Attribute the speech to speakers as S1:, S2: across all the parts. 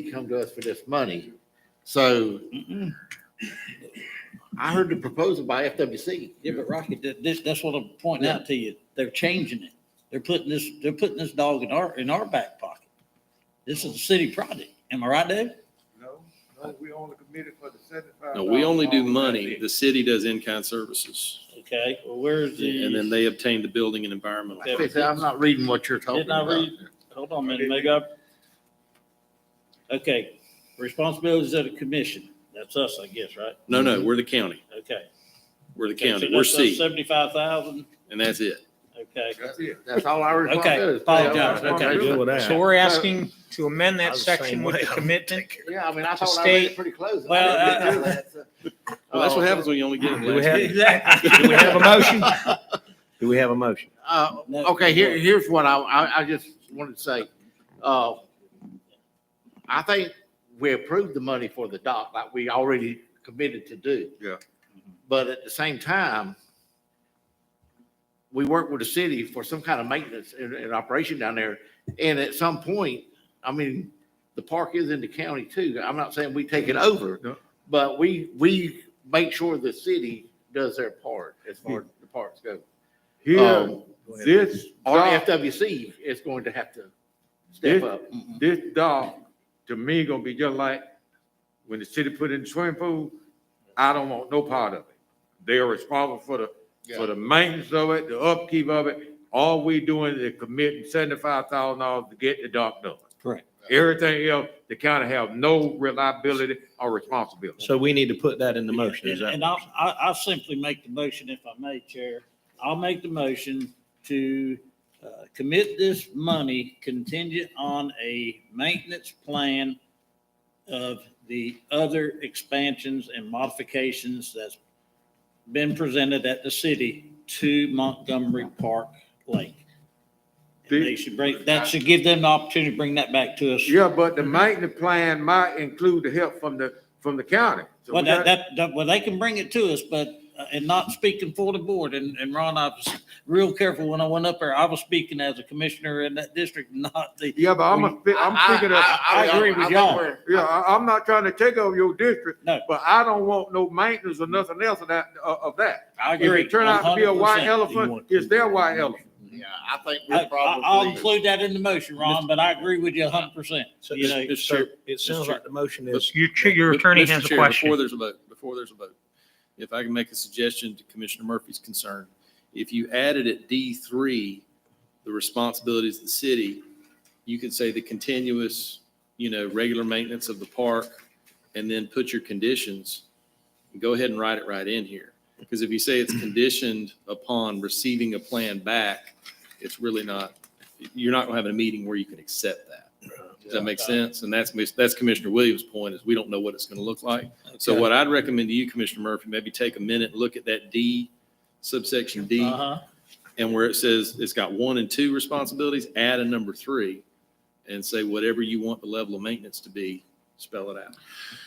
S1: they come to us for this money. So I heard the proposal by FWC.
S2: Yeah, but Rocky, that, this, that's what I'm pointing out to you. They're changing it. They're putting this, they're putting this dog in our, in our back pocket. This is a city project. Am I right, Dave?
S3: No, no, we only committed for the seventy-five.
S4: No, we only
S2: Oh,
S4: do money. The city does in-kind services.
S2: Okay, well, where's the?
S4: And then they obtain the building and environmental.
S1: I said, I'm not reading what you're talking
S2: Didn't I
S1: about.
S2: read- Hold on a minute, make up. Okay, responsibilities of the commission. That's us, I guess, right?
S4: No, no, we're the county.
S2: Okay.
S4: We're the
S2: Okay, so
S4: county. We're
S2: that's us
S4: C,
S2: 75,000,
S4: and that's it.
S2: Oh, okay.
S3: That's it.
S1: That's all I
S2: Okay,
S1: responsibility.
S5: Oh,
S2: apologize, okay.
S5: Deal with
S6: So
S5: that.
S6: we're asking to amend
S5: I'm
S6: that
S5: the
S6: section
S5: same
S6: with
S5: way.
S6: the commitment.
S1: Yeah, I mean, I thought I read it
S6: State-
S1: pretty close. I
S2: Well, uh,
S1: didn't do that, so-
S4: Well, that's what
S1: Uh,
S4: happens when you only get it
S5: Do we
S4: last
S5: have-
S4: week.
S6: Do we have a motion?
S5: Do we have a motion?
S1: Uh,
S2: No.
S1: okay, here, here's what I, I, I just wanted to say. Uh, I think we approved the money for the dock like we already committed to do.
S3: Yeah.
S1: But at the same time, we work with the city for some kind of maintenance and, and operation down there. And at some point, I mean, the park is in the county too. I'm not saying we take it
S3: No.
S1: over, but we, we make sure the city does their part as far as the parks go.
S3: Here,
S1: Um,
S3: this
S1: or
S3: dock,
S1: FWC is going to have to
S3: This-
S1: step up.
S3: this dock, to me, gonna be just like when the city put in the swimming pool, I don't want no part of it. They are responsible for the, for the maintenance of it, the upkeep of it. All we doing is committing seventy-five thousand dollars to get the dock done.
S2: Correct.
S3: Everything else, the county have no reliability or responsibility.
S5: So we need to put that in the motion, is
S2: And
S5: that?
S2: and I'll, I- I'll simply make the motion if I may, Chair. I'll make the motion to uh, commit this money contingent on a maintenance plan of the other expansions and modifications that's been presented at the city to Montgomery Park Lake. And They should bring, that should give them the opportunity to bring that back to us.
S3: Yeah, but the maintenance plan might include the help from the, from the county. So
S2: Well,
S3: we
S2: that,
S3: got-
S2: that, that- well, they can bring it to us, but, uh, and not speaking for the board, and, and Ron, I was real careful when I went up there, I was speaking as a commissioner in that district, not the.
S3: Yeah, but I'm, a- I'm thinking of,
S2: I agree with
S1: I think
S2: y'all.
S1: we're-
S3: yeah, I, I'm not trying to take over your district,
S2: No.
S3: but I don't want no maintenance or nothing else of that, of of that.
S2: I
S3: If
S2: agree.
S3: it turn out to be a white
S2: 100%.
S3: elephant, it's their white elephant.
S1: Yeah, I think
S2: I,
S1: we're
S2: I- I'll
S1: probably.
S2: include that in the motion, Ron, but I agree with you a hundred percent.
S5: So
S2: You know,
S5: so it sounds like the motion is.
S6: Your, ch- your attorney
S4: Mr.
S6: has a
S4: Chair,
S6: question.
S4: Before there's a vote, before there's a vote, if I can make a suggestion to Commissioner Murphy's concern, if you added at D three, the responsibilities of the city, you could say the continuous, you know, regular maintenance of the park, and then put your conditions. Go ahead and write it right in here, because if you say it's conditioned upon receiving a plan back, it's really not, you're not gonna have a meeting where you can accept that. Does that make sense? And that's, that's Commissioner Williams' point, is we don't know what it's going to look like. So what I'd recommend to you, Commissioner Murphy, maybe take a minute, look at that D, subsection D,
S2: Uh-huh.
S4: and where it says it's got one and two responsibilities, add a number three, and say whatever you want the level of maintenance to be, spell it out.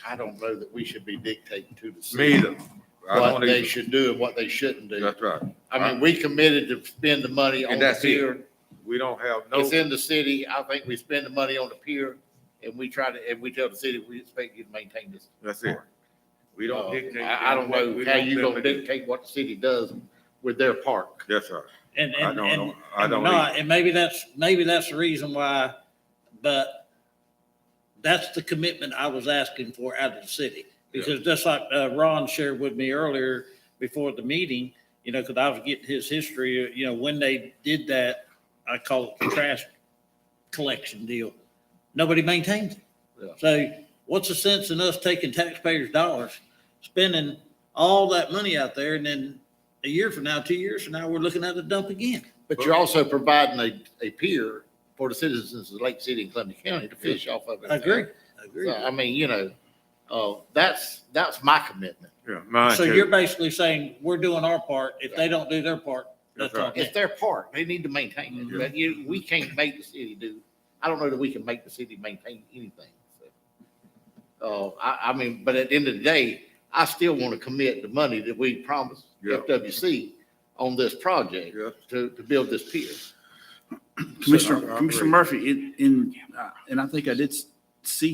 S1: I don't know that we should be dictating to the
S3: Me
S1: city
S3: either. I
S1: what
S3: don't
S1: they
S3: either.
S1: should do and what they shouldn't do.
S3: That's right.
S1: I mean, we committed to spend the money on
S3: And
S1: the
S3: that's
S1: pier.
S3: it. We don't have no,
S1: It's in the city. I think we spend the money on the pier and we try to, and we tell the city, we expect you to maintain this.
S3: that's it. We don't
S1: Uh,
S3: dictate.
S1: I, I don't know
S3: we
S1: how you
S3: don't
S1: gonna
S3: dictate.
S1: dictate what the city does with their park.
S3: That's right.
S2: And,
S3: I
S2: and,
S3: don't,
S2: and.
S3: know. I
S2: and
S3: don't.
S2: we're
S3: either.
S2: not, And maybe that's, maybe that's the reason why, but that's the commitment I was asking for out of the city. Because just like uh, Ron shared with me earlier before the meeting, you know, because I was getting his history, uh, you know, when they did that, I call it the trash collection deal. Nobody maintains it.
S1: Yeah.
S2: So what's the sense in us taking taxpayers' dollars, spending all that money out there and then a year from now, two years from now, we're looking at a dump again?
S1: But you're also providing a, a pier for the citizens of Lake City and Columbia County to fish off of. it.
S2: I agree. I
S1: So, I mean, you know, uh, that's, that's my commitment.
S3: Yeah, mine
S2: So
S3: too.
S2: you're basically saying, we're doing our part. If they don't do their part, that's
S3: That's
S2: on
S3: right.
S2: them.
S1: It's their part. They need to maintain it, but you, we can't make the city do, I don't know that we can make the city maintain anything. So, Uh, I, I mean, but at the end of the day, I still want to commit the money that we promised
S3: Yeah.
S1: FWC on this project
S3: Yeah.
S1: to, to build this pier.
S7: Commissioner,
S3: I- I
S7: Commissioner
S3: agree.
S7: Murphy, in, in, uh, and I think I did s- see